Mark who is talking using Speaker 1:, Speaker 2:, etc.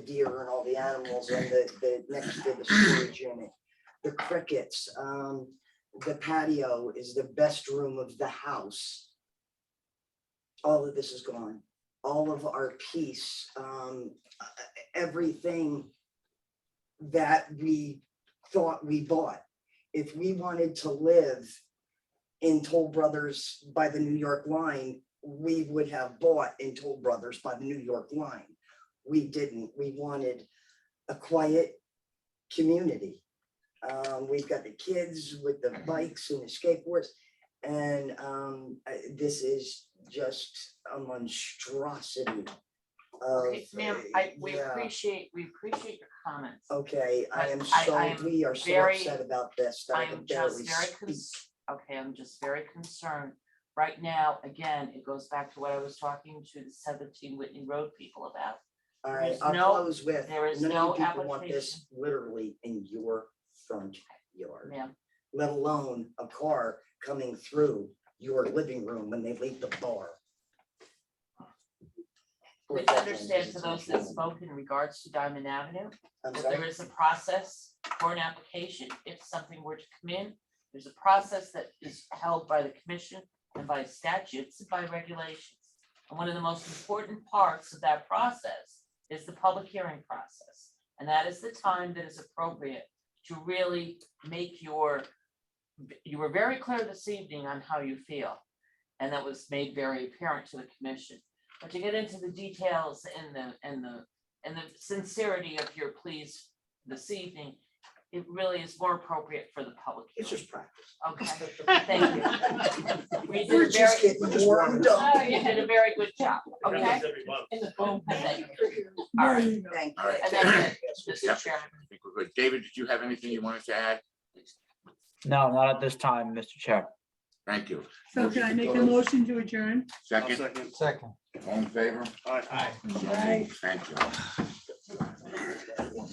Speaker 1: the deer and all the animals and the, the, next to the storage unit. The crickets, um, the patio is the best room of the house. All of this is gone, all of our peace, um, e- e- everything that we thought we bought. If we wanted to live in Toll Brothers by the New York line, we would have bought in Toll Brothers by the New York line. We didn't. We wanted a quiet community. Um, we've got the kids with the bikes and the skateboards. And um, uh, this is just a monstrosity of.
Speaker 2: Okay, Ma'am, I, we
Speaker 1: yeah. Oh,
Speaker 2: appreciate, we appreciate your comments.
Speaker 1: Okay, I
Speaker 2: But
Speaker 1: am
Speaker 2: I- I
Speaker 1: so,
Speaker 2: am
Speaker 1: we are so
Speaker 2: very-
Speaker 1: upset about this. that I
Speaker 2: I'm
Speaker 1: could barely
Speaker 2: just very,
Speaker 1: speak.
Speaker 2: cons- okay, I'm just very concerned. Right now, again, it goes back to what I was talking to the seventeen Whitney Road people about.
Speaker 1: All right,
Speaker 2: there's
Speaker 1: I'll
Speaker 2: no-
Speaker 1: close with,
Speaker 2: there is
Speaker 1: none
Speaker 2: no
Speaker 1: of you people want this literally in your front yard,
Speaker 2: Ma'am,
Speaker 1: let alone a car coming through your living room when they leave the bar. Or
Speaker 2: please
Speaker 1: that one,
Speaker 2: understand to
Speaker 1: it's
Speaker 2: those
Speaker 1: actually-
Speaker 2: that spoke in regards to Diamond Avenue,
Speaker 1: I'm
Speaker 2: that there
Speaker 1: sorry,
Speaker 2: is a process for an application. If something were to come in, there's a process that is held by the commission and by statutes and by regulations. And one of the most important parts of that process is the public hearing process. And that is the time that is appropriate to really make your, you were very clear this evening on how you feel. And that was made very apparent to the commission. But to get into the details and the, and the and the sincerity of your pleas this evening, it really is more appropriate for the public
Speaker 1: it's
Speaker 2: hearing.
Speaker 1: just practice.
Speaker 2: Okay, thank you. We
Speaker 1: We're
Speaker 2: did a
Speaker 1: just
Speaker 2: very, Oh,
Speaker 1: getting warmed up.
Speaker 2: you did a very good job, okay? Thank you. All right,
Speaker 1: Thank
Speaker 3: All right.
Speaker 2: and that's it,
Speaker 3: Yeah.
Speaker 2: Mr. Chairman.
Speaker 3: I think we're good. David, did you have anything you wanted to add?
Speaker 4: No, not at this time, Mr. Chair.
Speaker 3: Thank you.
Speaker 5: So can I make a motion to adjourn?
Speaker 3: Second,
Speaker 6: Second.
Speaker 3: all in favor?
Speaker 6: Aye.
Speaker 3: Thank you.